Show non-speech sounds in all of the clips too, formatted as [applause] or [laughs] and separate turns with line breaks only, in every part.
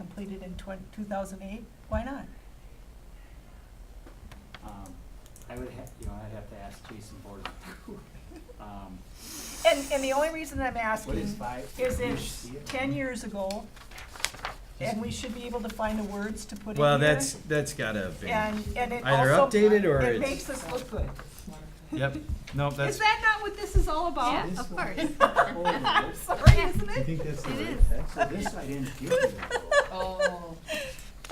completed in two thousand eight, why not?
Um, I would have, you know, I'd have to ask Jason Borden. Um,
And, and the only reason I'm
What is
asking
five?
is
You
if
see it?
ten years ago, and we should be able to find the words to put in here.
Well, that's, that's gotta be,
And, and it
either
also-
updated or
It
it's-
makes us look good.
yep, no,
Is
that's,
that not what this is all about?
Yeah, of course.
Oh,
[laughs] I'm sorry, isn't
You
it?
think that's the
It
right
is.
text?
So this I didn't give you.
Oh.
[laughs]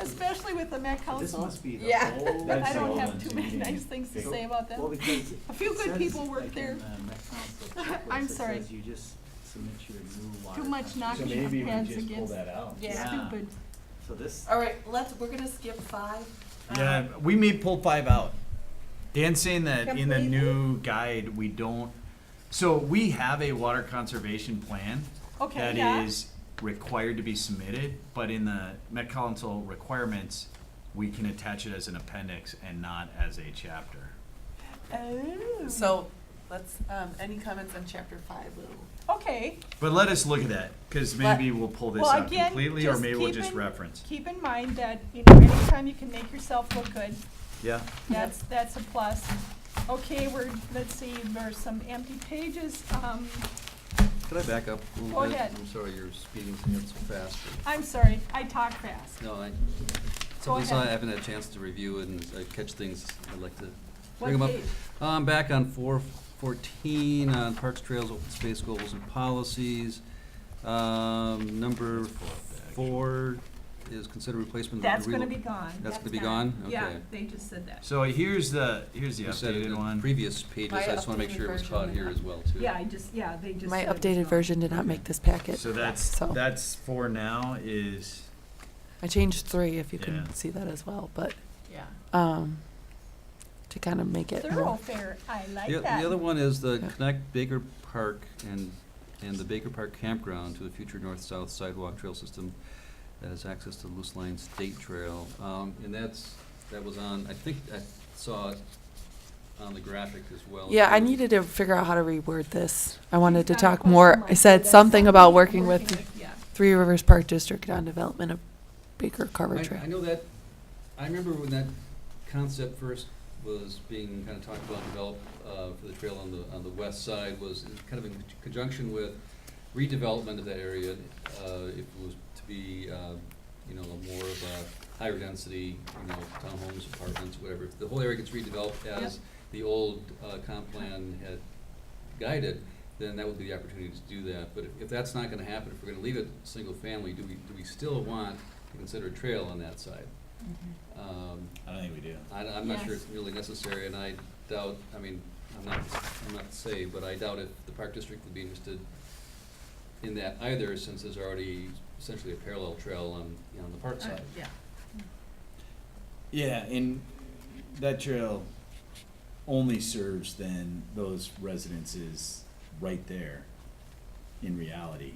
Especially with the Met
This
Council.
must be the
Yeah.
old.
I
That's the
don't
old
have
ones
too
you
many
mean.
nice things to
So-
say about that.
Well, because.
[laughs] A few
it
good
says,
people work
like,
there.
in uh, the
[laughs]
Met Council checklist,
I'm
it
sorry.
says You just submit your new water.
Too much
contribution.
So
knocking of
maybe we
heads
just pull
against-
that out.
Yeah. [laughs]
Stupid.
So this,
All right, let's, we're gonna skip five.
yeah, we may pull five out. Dan's saying that in the
Completely?
new guide, we don't, so we have a water conservation plan
Okay,
that
yeah.
is required to be submitted, but in the Met Council requirements, we can attach it as an appendix and not as a chapter.
Oh.
So, let's, um, any comments on chapter five, Lou?
Okay,
But let us look at that, cause maybe we'll pull this
Well,
out
again,
completely, or
just
maybe we'll
keep
just
in-
reference.
keep in mind that, you know, anytime you can make yourself look good,
Yeah.
that's, that's a plus. Okay, we're, let's see, there's some empty pages, um,
Can I back up a little
Go
bit?
ahead.
I'm sorry, you're speeding things so fast.
I'm sorry, I talk fast.
No, I,
Go
something I
ahead.
haven't had a chance to review and I catch things, I'd like to
What
bring them up.
page?
Um, back on four fourteen, on parks, trails, open space goals and policies. Um, number four is consider replacement of.
That's gonna
relo-
be gone.
That's gonna be gone? Okay.
Yeah, they just said that.
So here's the, here's the
You said it
updated
in
one.
previous pages, I just wanna make
updated
sure it was
version
caught
and
here
up-
as well too.
Yeah, I just, yeah, they just.
My
said it was
updated
gone.
version did not make this packet.
So that's,
So-
that's for now is,
I changed three, if you can
Yeah.
see that as well, but,
Yeah.
um, to kind of make it more.
Thoroughfare, I like
The,
that.
the other one is the
Yeah.
connect Baker Park and, and the Baker Park campground to the future north-south sidewalk trail system that has access to Loose Line State Trail. Um, and that's, that was on, I think I saw it on the graphic as well.
Yeah, I
too.
needed to figure out how to reword this. I wanted to
She's got a
talk
question
more,
mark,
I
so
said
that's
something about working
working
with
with, Yeah.
Three Rivers Park District on development of Baker Carver
I,
Trail.
I know that, I remember when that concept first was being kind of talked about, and developed, uh, for the trail on the, on the west side, was in- kind of in conjunction with redevelopment of that area, uh, if it was to be, uh, you know, more of a higher density, you know, townhomes, apartments, whatever. If The whole area gets redeveloped as the old, uh, comp plan had guided, then that would be the opportunity to do that. But if, if that's not gonna happen, if we're gonna leave it single family, do we, do we still want to consider a trail on that side? Um,
I don't think we do.
I, I'm not sure
Yes.
it's really necessary, and I doubt, I mean, I'm not, I'm not to say, but I doubt if the park district would be interested in that either, since there's already essentially a parallel trail on, on the park side.
Yeah.
Yeah, and that trail only serves then those residences right there in reality.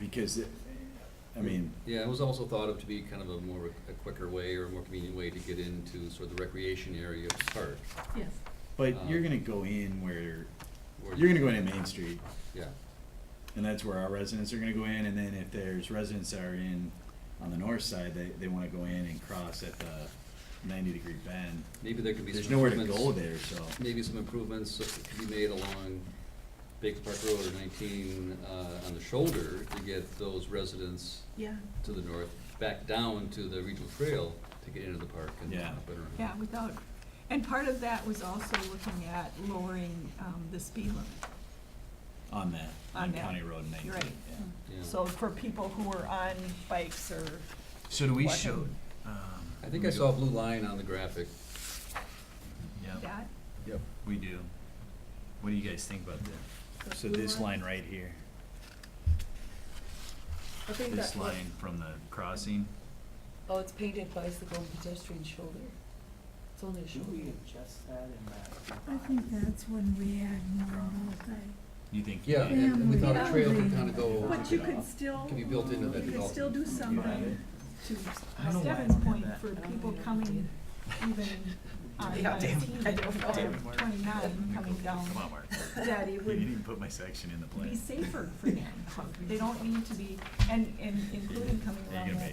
Because it, I mean,
Yeah, it was also thought of to be kind of a more, a quicker way or a more convenient way to get into sort of the recreation area of the park.
Yes.
but you're gonna go in where,
where-
you're gonna go into Main Street,
Yeah.
and that's where our residents are gonna go in, and then if there's residents that are in on the north side, they, they wanna go in and cross at the ninety degree bend.
Maybe there could be some
There's nowhere to
improvements-
go there, so.
Maybe some improvements that could be made along Baker Park Road or nineteen, uh, on the shoulder to get those residents
Yeah,
to the north, back down to the regional trail to get into the park and
Yeah.
up and around.
yeah, without, and part of that was also looking at lowering, um, the speed limit.
On that,
On
on
that.
County Road nineteen,
Right.
yeah.
Yeah.
So for people who are on bikes or,
So do we
What?
show? um,
I think
we
I
do-
saw a blue line on the graphic.
Yeah,
that,
yep, we do. What do you guys think about that? So
blue
this line
line?
right here,
I think
this
that,
line from the crossing,
oh, it's painted bicycle and pedestrian shoulder. It's only a
should we
shoulder.
adjust that in that?
I think that's when we had more multi.
you think?
Yeah, and we thought a trail could kind of go,
but you could still,
can be built into that
you could still
development.
do something to Stevin's point for people coming even on
Yeah, damn
nineteen
I don't know.
or twenty-nine coming down,
Come on, Mark,
that it
you didn't
would
even put my section in the
be
plan.
safer for them. They don't need to be, and, and including coming
You're
around
gonna
that
make